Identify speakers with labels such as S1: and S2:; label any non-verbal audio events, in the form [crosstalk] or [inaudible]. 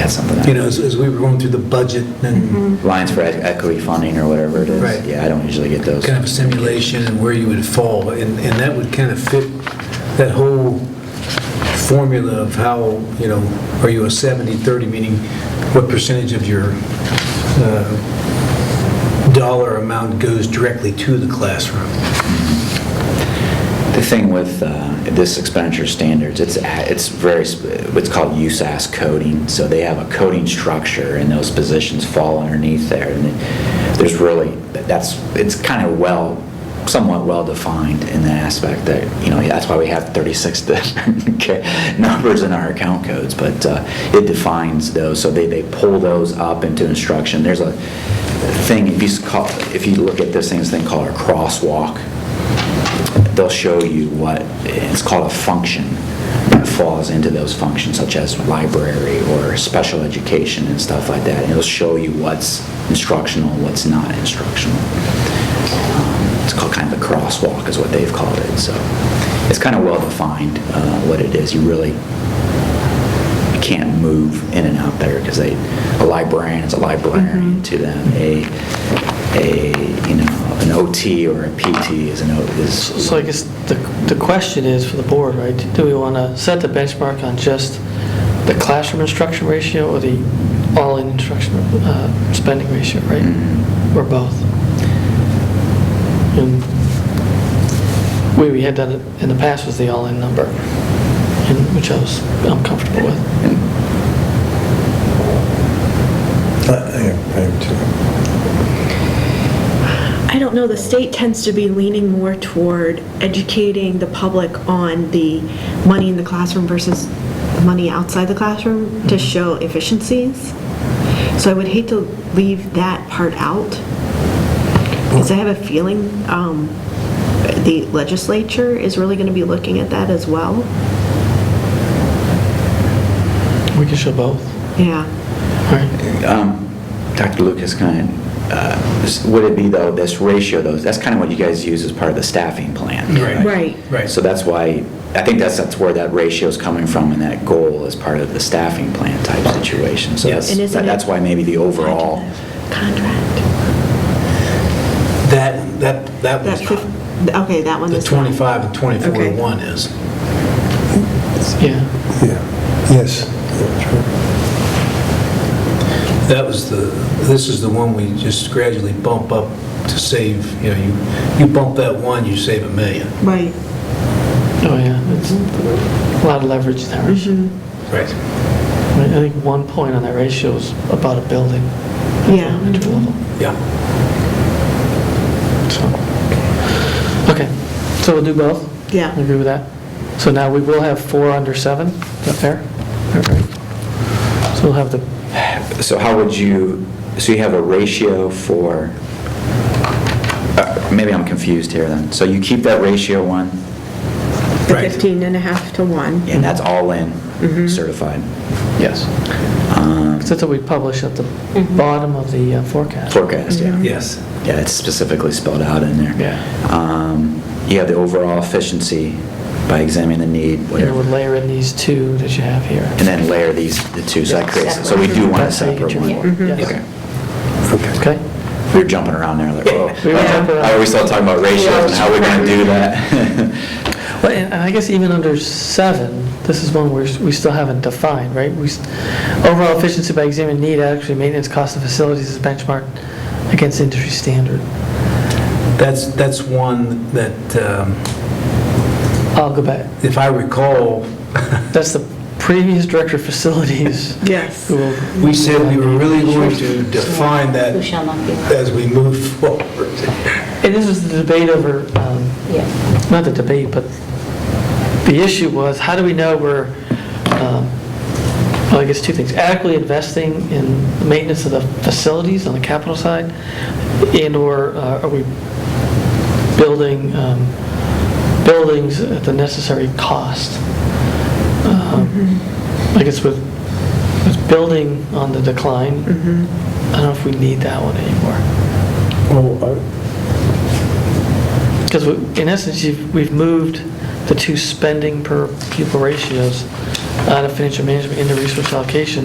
S1: add something.
S2: You know, as, as we were going through the budget and
S1: Lines for e- equity funding or whatever it is.
S2: Right.
S1: Yeah, I don't usually get those.
S2: kind of a simulation and where you would fall, and, and that would kind of fit that whole formula of how, you know, are you a 70-30, meaning what percentage of your uh, dollar amount goes directly to the classroom?
S1: The thing with uh, this expenditure standards, it's, a- it's very, sp- it's called USAS coding, so they have a coding structure, and those positions fall underneath there, and it- there's really, that's, it's kind of well, somewhat well-defined in that aspect, that, you know, that's why we have 36 [laughs] different ca- numbers in our account codes, but uh, it defines those, so they, they pull those up into instruction. There's a thing, if you, s- call- if you look at this thing, this thing called a crosswalk, they'll show you what, it's called a function that falls into those functions, such as library or special education and stuff like that. And it'll show you what's instructional, what's not instructional. Um, It's called kind of a crosswalk is what they've called it, so it's kind of well-defined uh, what it is. You really you can't move in and out there because they, a librarian is a librarian to them. A, a, you know, an OT or a PT is an, O- is
S3: So I guess the, the question is for the board, right? Do we want to set the benchmark on just the classroom instruction ratio or the all-in instruction uh, spending ratio, right? Or both? And way we had done it in the past was the all-in number, and- which I was, I'm comfortable with.
S4: I I am too.
S5: I don't know, the state tends to be leaning more toward educating the public on the money in the classroom versus money outside the classroom to
S4: Mm-hmm.
S5: show efficiencies. So I would hate to leave that part out, because I have a feeling um, the legislature is really going to be looking at that as well.
S3: We can show both,
S5: Yeah,
S3: all right?
S1: Um, Dr. Lucas, kind of, uh, s- would it be though, this ratio though, that's kind of what you guys use as part of the staffing plan?
S2: Right.
S5: Right.
S2: Right.
S1: So that's why, I think that's, that's where that ratio is coming from and that goal is part of the staffing plan type situation. So
S2: Yes.
S1: that's,
S5: And isn't it-
S1: that's why maybe the overall,
S5: contract.
S2: That, that, that
S5: That,
S2: was
S5: fif- okay, that one
S2: the
S5: is.
S2: 25 and 24 to
S5: Okay.
S2: 1 is.
S3: Yeah,
S4: Yeah, yes. yeah,
S2: That was the, this is the one we just gradually bump up to save, you know, you, you bump that one, you save a million.
S5: Right.
S3: oh, yeah, it's a lot of leverage in that ratio.
S2: Right.
S3: I I think one point on that ratio is about a building. at the
S5: Yeah.
S3: elementary level.
S2: Yeah.
S3: So, Okay, so we'll do both?
S5: Yeah.
S3: Agree with that? So now we will have four under seven, is that fair? All right. So we'll have the,
S1: so how would you, so you have a ratio for, uh, maybe I'm confused here then. So you keep that ratio one
S5: The
S2: Right.
S5: 15 and a half to 1.
S1: and that's all
S5: Mm-hmm.
S1: in certified? Yes.
S3: 'cause that's what Um, we publish at the bottom of the uh, forecast.
S1: Forecast,
S5: Mm-hmm.
S1: yeah.
S2: Yes.
S1: Yeah, it's specifically spelled out in there.
S3: Yeah.
S1: Um, You have the overall efficiency by examining the need,
S3: And then
S1: whatever,
S3: we'll layer in these two that you have here.
S1: and then layer these, the two, so that creates, so we do want a
S3: That's how you get
S1: separate
S3: your
S1: one.
S3: four. Yes.
S1: Okay.
S3: Okay?
S1: We were jumping around there, like,
S3: We
S1: whoa.
S3: were jumping around.
S1: I always thought talking about ratios and how we're going to do that. [laughs]
S3: Well, and and I guess even under seven, this is one where we still haven't defined, right? We, s- overall efficiency by examining need, actually maintenance cost of facilities is benchmarked against industry standard.
S2: That's, that's one that, um,
S3: I'll go back.
S2: if I recall,
S3: That's the previous director of facilities
S5: Yes.
S3: who will,
S2: we said we were really going to define that
S6: Who shall not be.
S2: as we move forward.
S3: and this was the debate over, um,
S6: Yeah,
S3: not the debate, but the issue was, how do we know we're, um, well, I guess two things, adequately investing in the maintenance of the facilities on the capital side, and/or uh, are we building um, buildings at the necessary cost? Um, I guess with, with building on the decline, I don't know if we need that one anymore.
S4: Oh,
S3: Because in essence, you've- we've moved the two spending per pupil ratios out of financial management into resource allocation